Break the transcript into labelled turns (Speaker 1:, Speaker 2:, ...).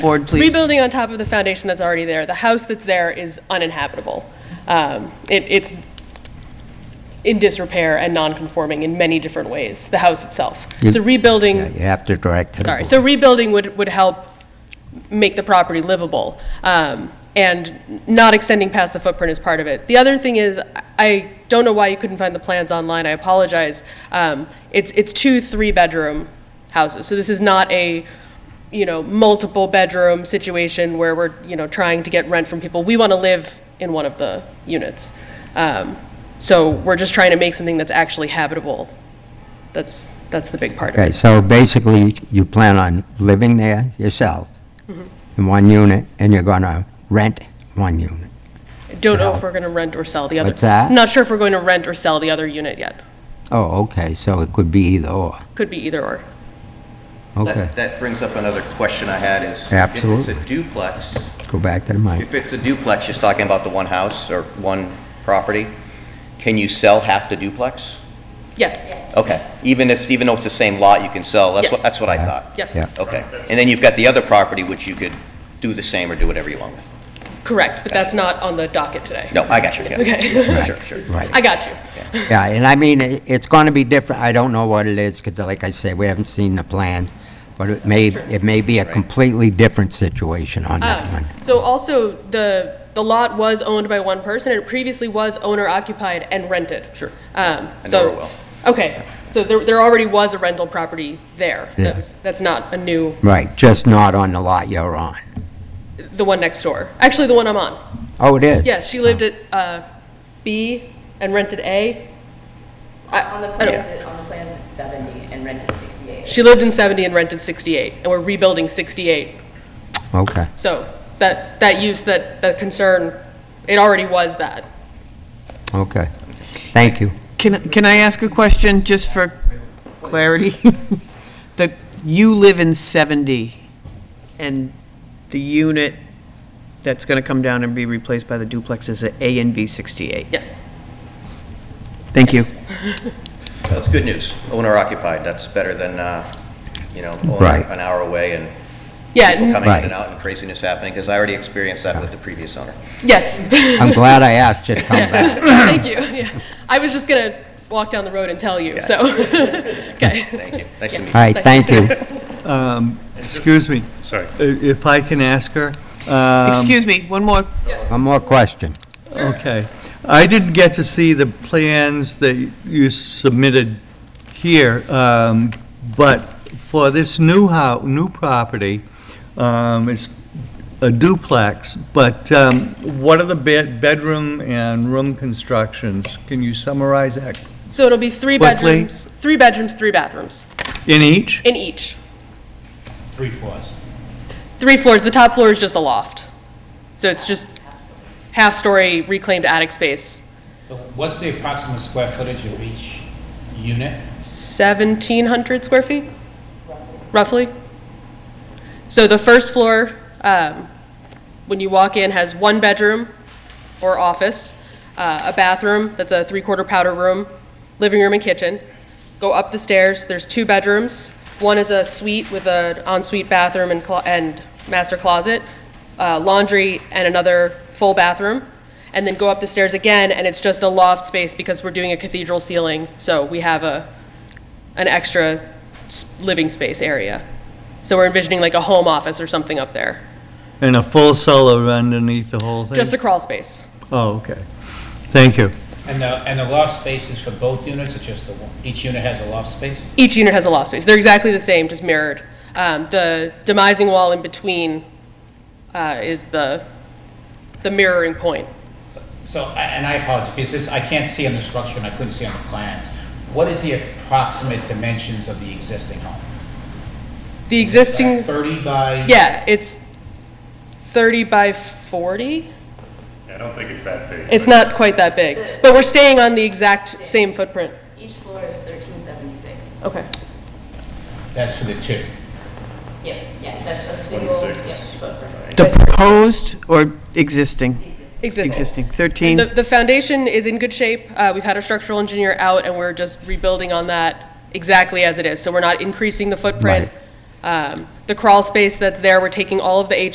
Speaker 1: Board, please.
Speaker 2: Rebuilding on top of the foundation that's already there. The house that's there is uninhabitable. Um, it, it's in disrepair and non-conforming in many different ways, the house itself. So
Speaker 3: Yeah,
Speaker 2: rebuilding,
Speaker 3: You have to direct to the
Speaker 2: sorry,
Speaker 3: board.
Speaker 2: so rebuilding would, would help make the property livable. Um, and not extending past the footprint is part of it. The other thing is, I don't know why you couldn't find the plans online, I apologize. Um, it's, it's two three-bedroom houses, so this is not a you know, multiple bedroom situation where we're, you know, trying to get rent from people. We want to live in one of the units. Um, so we're just trying to make something that's actually habitable. That's, that's the big part of
Speaker 3: Okay,
Speaker 2: it.
Speaker 3: so basically, you plan on living there yourself in one unit, and you're going to rent one unit.
Speaker 2: Don't know if we're going to rent or sell the other.
Speaker 3: What's that?
Speaker 2: Not sure if we're going to rent or sell the other unit yet.
Speaker 3: Oh, okay, so it could be either or.
Speaker 2: Could be either or.
Speaker 3: Okay,
Speaker 4: That, that brings up another question I had is.
Speaker 3: Absolutely.
Speaker 4: If it's a duplex,
Speaker 3: go back to the mic.
Speaker 4: if it's a duplex, just talking about the one house or one property, can you sell half the duplex?
Speaker 2: Yes,
Speaker 4: Okay, even if, even though it's the same lot, you can sell, that's what,
Speaker 2: Yes.
Speaker 4: that's what I thought?
Speaker 2: yes,
Speaker 3: Yeah.
Speaker 4: Okay, and then you've got the other property which you could do the same or do whatever you want with?
Speaker 2: correct, but that's not on the docket today.
Speaker 4: No, I got you, yeah.
Speaker 2: Okay.
Speaker 4: Sure, sure.
Speaker 3: Right.
Speaker 2: I got you.
Speaker 3: Yeah, and I mean, i- it's going to be different, I don't know what it is, because like I said, we haven't seen the plan, but it may, it may be a completely different situation on that one.
Speaker 2: Um, So also, the, the lot was owned by one person, and it previously was owner-occupied and rented.
Speaker 4: Sure.
Speaker 2: Um,
Speaker 4: I
Speaker 2: so-
Speaker 4: know her well.
Speaker 2: Okay, so there, there already was a rental property there.
Speaker 3: Yeah.
Speaker 2: That's, that's not a new,
Speaker 3: Right, just not on the lot you're on.
Speaker 2: the one next door. Actually, the one I'm on.
Speaker 3: Oh, it is?
Speaker 2: Yes, she lived at uh, B and rented A. I-
Speaker 5: On the
Speaker 2: I don't-
Speaker 5: plans, it- on the plans, it's 70 and rented 68.
Speaker 2: She lived in 70 and rented 68, and we're rebuilding 68.
Speaker 3: Okay,
Speaker 2: So that, that use, that, that concern, it already was that.
Speaker 3: okay. Thank you.
Speaker 1: Can, can I ask a question, just for clarity? That you live in 70, and the unit that's going to come down and be replaced by the duplex is at A and B 68?
Speaker 2: Yes.
Speaker 1: Thank you.
Speaker 4: That's good news, owner occupied, that's better than, uh, you know, owner
Speaker 3: Right.
Speaker 4: an hour away and
Speaker 2: Yeah,
Speaker 4: people
Speaker 2: n-
Speaker 4: coming in
Speaker 3: Right.
Speaker 4: and out and craziness happening, because I already experienced that with the previous owner.
Speaker 2: yes.
Speaker 3: I'm glad I asked you to come back.
Speaker 2: Thank you. Yeah. I was just going to walk down the road and tell you, so. Okay.
Speaker 4: Thank you, nice to meet you.
Speaker 3: All right, thank you.
Speaker 6: Excuse me.
Speaker 7: Sorry.
Speaker 6: i- If I can ask her, um,
Speaker 1: Excuse me, one more.
Speaker 3: One more question.
Speaker 6: okay. I didn't get to see the plans that you submitted here, um, but for this new hou, new property, um, it's a duplex, but um, what are the bed, bedroom and room constructions? Can you summarize that
Speaker 2: So it'll be three
Speaker 6: What,
Speaker 2: bedrooms, three bedrooms, three bathrooms
Speaker 6: in each?
Speaker 2: in each.
Speaker 7: Three floors.
Speaker 2: Three floors. The top floor is just a loft. So it's just half-story reclaimed attic space.
Speaker 7: So What's the approximate square footage of each unit?
Speaker 2: 1,700 square feet, roughly. So the first floor, um, when you walk in, has one bedroom or office, uh, a bathroom, that's a three-quarter powder room, living room and kitchen. Go up the stairs, there's two bedrooms. One is a suite with an ensuite bathroom and clo- and master closet, uh, laundry, and another full bathroom. And then go up the stairs again, and it's just a loft space because we're doing a cathedral ceiling, so we have a an extra s- living space area. So we're envisioning like a home office or something up there,
Speaker 6: And a full cellar underneath the whole thing?
Speaker 2: just a crawl space.
Speaker 6: Oh, okay. Thank you.
Speaker 7: And the, and the loft space is for both units, or just the one? Each unit has a loft space?
Speaker 2: Each unit has a loft space. They're exactly the same, just mirrored. Um, the demising wall in between uh, is the the mirroring point.
Speaker 7: So, I- and I apologize, because this, I can't see on the structure, and I couldn't see on the plans. What is the approximate dimensions of the existing home?
Speaker 2: The
Speaker 7: Is that
Speaker 2: existing,
Speaker 7: 30 by?
Speaker 2: yeah, it's 30 by 40.
Speaker 8: I don't think it's that big.
Speaker 2: It's not quite that big, but we're staying on the exact same footprint.
Speaker 5: Each floor is 1376.
Speaker 2: Okay.
Speaker 7: That's for the two.
Speaker 5: Yeah, yeah, that's a single,
Speaker 8: six.
Speaker 5: yeah, footprint.
Speaker 1: The proposed or existing?
Speaker 2: Existing.
Speaker 1: Existing,
Speaker 2: And
Speaker 1: 13?
Speaker 2: The, the foundation is in good shape. Uh, we've had a structural engineer out and we're just rebuilding on that exactly as it is. So we're not increasing the footprint. Um, the crawl space that's there, we're taking all of the